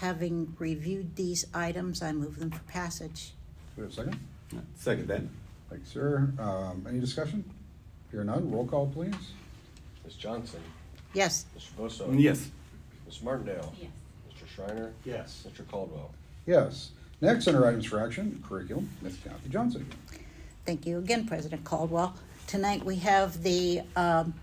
having reviewed these items, I move them for passage. Do we have a second? Second that. Thanks, sir. Um, any discussion? Here none, roll call, please. Ms. Johnson, Yes, Mr. Bosso. Um, Yes. Ms. Martindale. yes, Mr. Shriner. yes, Mr. Caldwell. Yes. Next, under items for action, curriculum, Ms. Kathy Johnson. thank you again, President Caldwell. Tonight we have the um,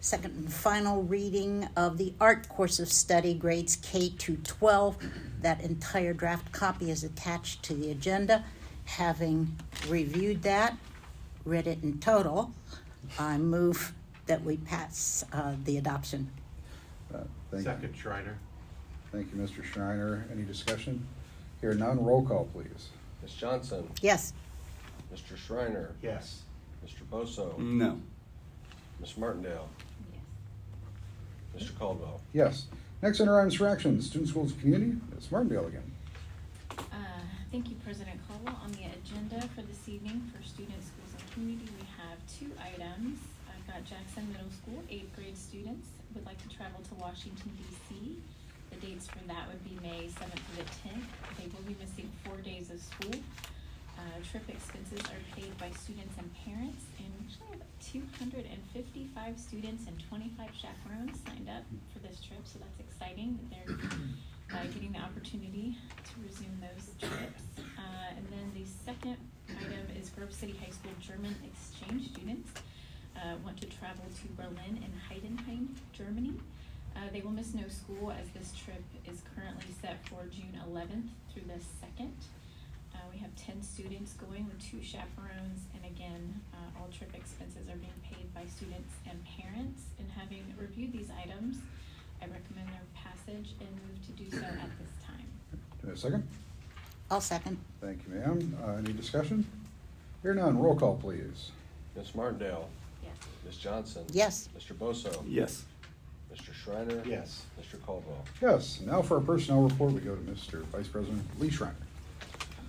second and final reading of the art course of study, grades K to 12. That entire draft copy is attached to the agenda. Having reviewed that, read it in total, I move that we pass uh, the adoption. Uh, Thank you. second Shriner, Thank you, Mr. Shriner. Any discussion? Here none, roll call, please. Ms. Johnson, Yes, Mr. Shriner, yes, Mr. Mm. Bosso. Um, No. Ms. Martindale, yes. Mr. Caldwell. Yes. Next, under items for action, student, schools, community, Ms. Martindale again. Uh, Thank you, President Caldwell. On the agenda for this evening for students, schools, and community, we have two items. I've got Jackson Middle School, eighth grade students would like to travel to Washington DC. The dates for that would be May seventh to the tenth. They will be missing four days of school. Uh, Trip expenses are paid by students and parents, and we actually have two hundred and fifty-five students and twenty-five chaperones signed up for this trip, so that's exciting that they're uh, getting the opportunity to resume those trips. Uh, and then the second item is Grove City High School German exchange students uh, want to travel to Berlin and Heidenheim, Germany. Uh, they will miss no school as this trip is currently set for June 11th through the 2nd. Uh, we have 10 students going with two chaperones, and again, uh, all trip expenses are being paid by students and parents. And having reviewed these items, I recommend their passage and move to do so at this time. Do we have a second? I'll second. Thank you, ma'am. Uh, any discussion? Here none, roll call, please. Ms. Martindale, Yes. Ms. Johnson. Yes. Mr. Bosso. Yes. Mr. Shriner. yes. Mr. Caldwell. Yes. Now for our personnel report, we go to Mr. Vice President Lee Shriner.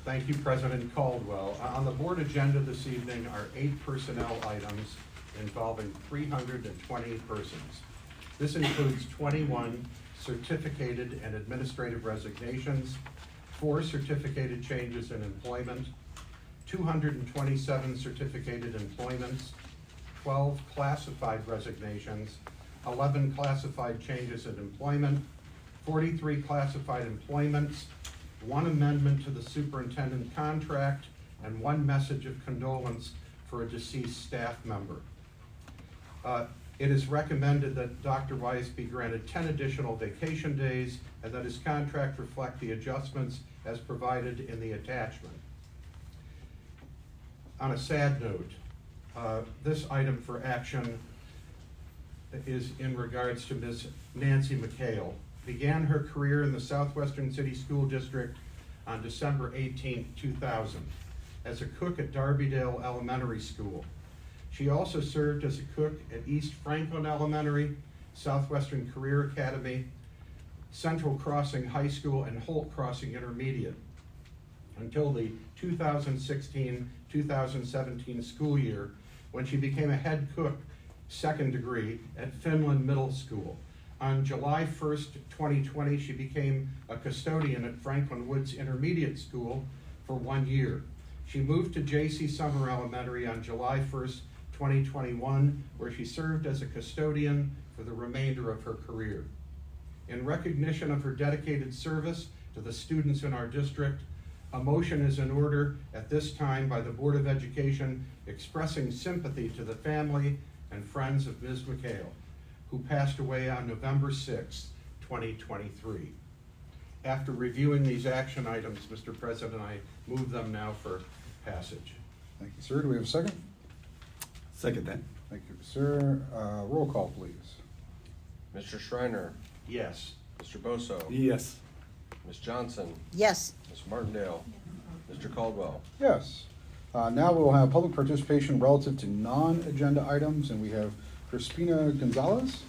Thank you, President Caldwell. Uh, On the board agenda this evening are eight personnel items involving 320 persons. This includes 21 certificated and administrative resignations, four certificated changes in employment, 227 certificated employments, 12 classified resignations, 11 classified changes in employment, 43 classified employments, one amendment to the superintendent contract, and one message of condolence for a deceased staff member. Uh, It is recommended that Dr. Weiss be granted 10 additional vacation days and that his contract reflect the adjustments as provided in the attachment. On a sad note, uh, this item for action is in regards to Ms. Nancy McHale. Began her career in the Southwestern City School District on December 18, 2000, as a cook at Darbydale Elementary School. She also served as a cook at East Franklin Elementary, Southwestern Career Academy, Central Crossing High School, and Holt Crossing Intermediate until the 2016-2017 school year, when she became a head cook, second degree, at Finland Middle School. On July 1st, 2020, she became a custodian at Franklin Woods Intermediate School for one year. She moved to J.C. Summer Elementary on July 1st, 2021, where she served as a custodian for the remainder of her career. In recognition of her dedicated service to the students in our district, a motion is in order at this time by the Board of Education expressing sympathy to the family and friends of Ms. McHale, who passed away on November 6, 2023. After reviewing these action items, Mr. President, I move them now for passage. Thank you, sir. Do we have a second? Second that. Thank you, sir. Uh, roll call, please. Mr. Shriner, Yes. Mr. Bosso. Yes. Ms. Johnson, Yes. Ms. Martindale, Mr. Caldwell. Yes. Uh, Now we will have public participation relative to non-agenda items, and we have Crispina Gonzalez.